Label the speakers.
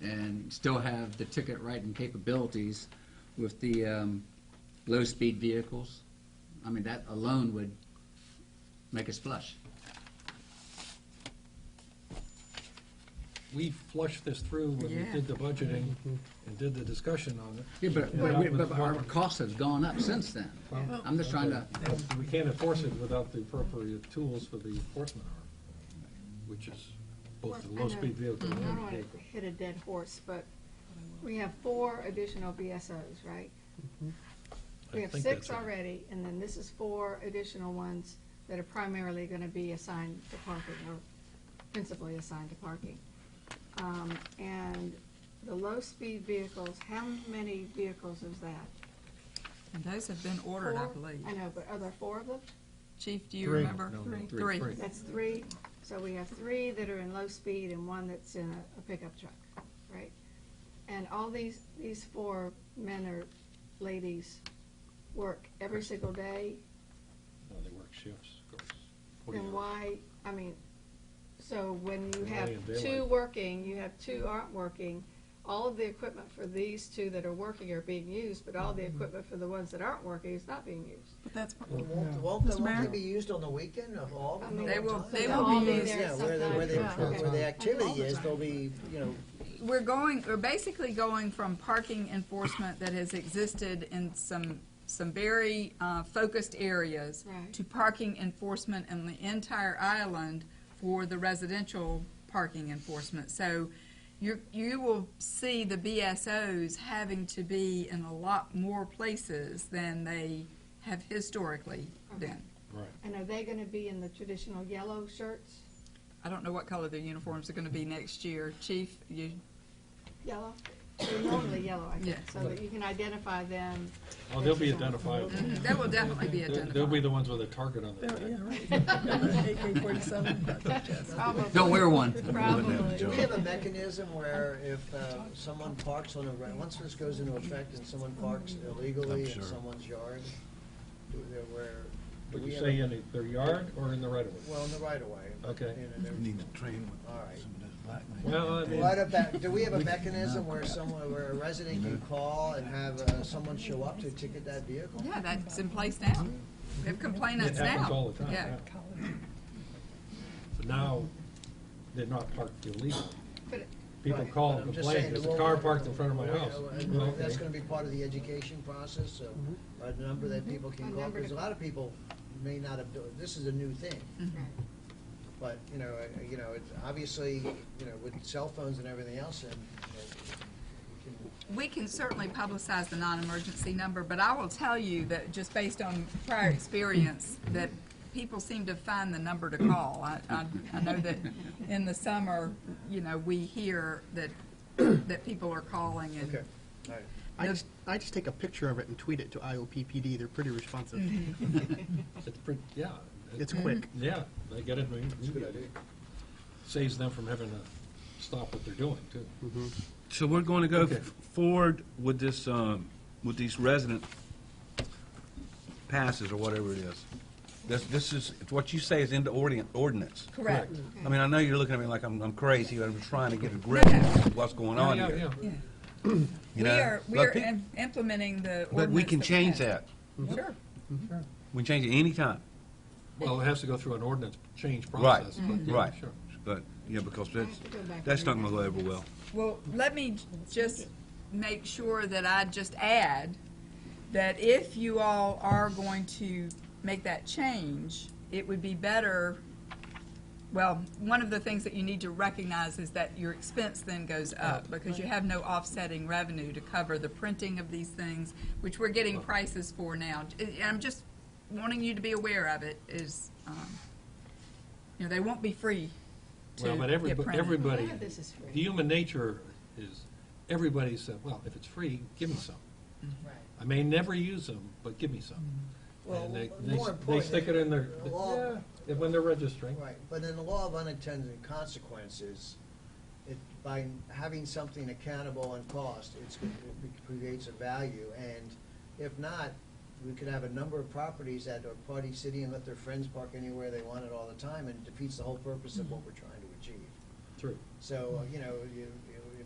Speaker 1: and still have the ticket writing capabilities with the um, low-speed vehicles. I mean, that alone would make us flush.
Speaker 2: We flushed this through when we
Speaker 1: Yeah.
Speaker 2: did the budgeting and did the discussion on it.
Speaker 1: Yeah, but,
Speaker 2: Yeah.
Speaker 1: but- but our costs have gone up since then.
Speaker 2: Well,
Speaker 1: I'm just trying to,
Speaker 2: okay. We can't enforce it without the appropriate tools for the enforcement arm, which is both the
Speaker 3: Well, I know- Mm-hmm.
Speaker 2: low-speed vehicle and
Speaker 3: I
Speaker 2: the
Speaker 3: don't want to
Speaker 2: vehicle.
Speaker 3: hit a dead horse, but we have four additional BSOs, right?
Speaker 2: I
Speaker 3: We have
Speaker 2: think
Speaker 3: six
Speaker 2: that's right.
Speaker 3: already, and then this is four additional ones that are primarily going to be assigned to parking, or principally assigned to parking. Um, And the low-speed vehicles, how many vehicles is that?
Speaker 4: And those have been ordered, I
Speaker 3: Four?
Speaker 4: believe.
Speaker 3: I know, but are there four of them?
Speaker 4: Chief, do you
Speaker 2: Three.
Speaker 4: remember?
Speaker 2: No, no,
Speaker 4: Three.
Speaker 2: three.
Speaker 3: That's three, so we have three that are in low speed and one that's in a- a pickup truck, right? And all these, these four men or ladies work every single day,
Speaker 2: No, they work shifts, of course. 40
Speaker 3: then
Speaker 2: hours.
Speaker 3: why, I mean, so when you
Speaker 2: Why
Speaker 3: have
Speaker 2: in daylight?
Speaker 3: two working, you have two aren't working, all of the equipment for these two that are working are being used, but all the equipment for the ones that aren't working is not being used.
Speaker 4: But that's,
Speaker 5: But Won't, won't the
Speaker 4: Mr.
Speaker 5: ones
Speaker 4: Mayor?
Speaker 5: that be used on the weekend of all?
Speaker 3: I
Speaker 5: of
Speaker 3: mean,
Speaker 5: them?
Speaker 4: They will- they
Speaker 3: they'll
Speaker 4: will
Speaker 3: all
Speaker 4: be used.
Speaker 3: there
Speaker 5: Yeah, where the, where the,
Speaker 3: sometime. Yeah, okay.
Speaker 5: where the
Speaker 4: all
Speaker 5: activity
Speaker 4: the
Speaker 5: is,
Speaker 4: time.
Speaker 5: they'll be, you know,
Speaker 4: we're going, we're basically going from parking enforcement that has existed in some, some very uh, focused areas
Speaker 3: Right.
Speaker 4: to parking enforcement in the entire island for the residential parking enforcement. So you, you will see the BSOs having to be in a lot more places than they have historically been.
Speaker 2: Right.
Speaker 3: And are they gonna be in the traditional yellow shirts?
Speaker 4: I don't know what color their uniforms are gonna be next year. Chief, you,
Speaker 3: Yellow? They're normally yellow, I think,
Speaker 4: Yeah.
Speaker 3: so that you can identify them.
Speaker 2: Oh, they'll be identified.
Speaker 4: Mm-hmm. that will definitely be
Speaker 2: They'll- They'll be
Speaker 4: identified.
Speaker 2: the ones with a target on their
Speaker 3: Oh,
Speaker 2: back.
Speaker 1: don't wear one.
Speaker 5: do we
Speaker 3: Probably.
Speaker 5: have a mechanism where if uh, someone parks on a, re- once this goes into effect and someone parks illegally in someone's yard, do they, where? do
Speaker 2: Would
Speaker 5: we
Speaker 2: you
Speaker 5: have
Speaker 2: say
Speaker 5: a-
Speaker 2: in the- their yard or in the right of way?
Speaker 5: Well, in the right of way. but,
Speaker 2: Okay.
Speaker 5: you know, they're-
Speaker 6: Need to train with
Speaker 5: All right.
Speaker 6: some of this black man.
Speaker 2: Well, I mean-
Speaker 5: Right up back, do we have a mechanism where someone, where a resident can call and have uh, someone show up to ticket that vehicle?
Speaker 4: Yeah, that's in place now. They have complainants
Speaker 2: It
Speaker 4: now.
Speaker 2: happens all the time,
Speaker 4: Yeah.
Speaker 2: yeah. But now, they're not parked illegally.
Speaker 3: But
Speaker 2: People
Speaker 5: Right,
Speaker 2: call
Speaker 5: but
Speaker 2: and
Speaker 5: I'm just
Speaker 2: complain,
Speaker 5: saying,
Speaker 2: there's a
Speaker 5: well,
Speaker 2: car parked in front of my
Speaker 5: well,
Speaker 2: house.
Speaker 5: and
Speaker 2: Well,
Speaker 5: That's
Speaker 2: okay.
Speaker 5: gonna be part of the education process, of a number that people
Speaker 3: A
Speaker 5: can call,
Speaker 3: number
Speaker 5: because
Speaker 3: to-
Speaker 5: a lot of people may not have, do- this is a new thing. But, you know, uh, you know, it's obviously, you know, with cell phones and everything else, and, and we can
Speaker 4: We can certainly publicize the non-emergency number, but I will tell you that just based on prior experience, that people seem to find the number to call. I, I, I know that in the summer, you know, we hear that, that people are calling and.
Speaker 5: Okay, all right.
Speaker 7: I
Speaker 4: The-
Speaker 7: just, I just take a picture of it and tweet it to IOPPD. They're pretty responsive.
Speaker 2: It's pretty, yeah.
Speaker 7: It's quick.
Speaker 2: Yeah, they get it,
Speaker 5: It's a good
Speaker 2: it
Speaker 5: idea.
Speaker 2: saves them from having to stop what they're doing, too.
Speaker 8: So we're going to go
Speaker 2: Okay.
Speaker 8: f- forward with this, um, with these resident passes or whatever it is. This, this is, it's what you say is into ordin- ordinance.
Speaker 4: Correct.
Speaker 8: I mean, I know you're looking at me like I'm, I'm crazy, but I'm trying to get a grip
Speaker 4: No,
Speaker 8: on
Speaker 4: no.
Speaker 8: what's going
Speaker 2: Yeah,
Speaker 8: on
Speaker 2: yeah,
Speaker 8: here.
Speaker 2: yeah.
Speaker 8: you
Speaker 4: We
Speaker 8: know?
Speaker 4: are, we
Speaker 8: But
Speaker 4: are
Speaker 8: pe-
Speaker 4: im- implementing the ordinance.
Speaker 8: But we can change that.
Speaker 4: that. Sure.
Speaker 8: We can change it anytime.
Speaker 2: Well, it has to go through an ordinance change process. but yeah,
Speaker 8: Right.
Speaker 2: sure.
Speaker 8: But, yeah, because that's,
Speaker 3: have to go back and
Speaker 8: that's not
Speaker 3: read
Speaker 8: going to go
Speaker 3: that.
Speaker 8: over well.
Speaker 4: Well, let me just make sure that I just add that if you all are going to make that change, it would be better, well, one of the things that you need to recognize is that your expense then goes up because you have no offsetting revenue to cover the printing of these things, which we're getting prices for now. And I'm just wanting you to be aware of it is, um, you know, they won't be free to
Speaker 2: Well, but
Speaker 4: get
Speaker 2: everybody,
Speaker 4: printed.
Speaker 2: everybody,
Speaker 3: None of this is free.
Speaker 2: human nature is, everybody said, well, if it's free, give me some. I may never use them, but give me some.
Speaker 5: Mm. Well,
Speaker 2: And they,
Speaker 5: more
Speaker 2: they, s- they
Speaker 5: important-
Speaker 2: stick it in their,
Speaker 5: the law-
Speaker 2: yeah, and when they're registering.
Speaker 5: Right, but in the law of unintended consequences, it, by having something accountable in cost, it's, it creates a value, and if not, we could have a number of properties that are party city and let their friends park anywhere they want it all the time, and it defeats the whole purpose of what we're trying to achieve.
Speaker 2: True.
Speaker 5: So, you know, you,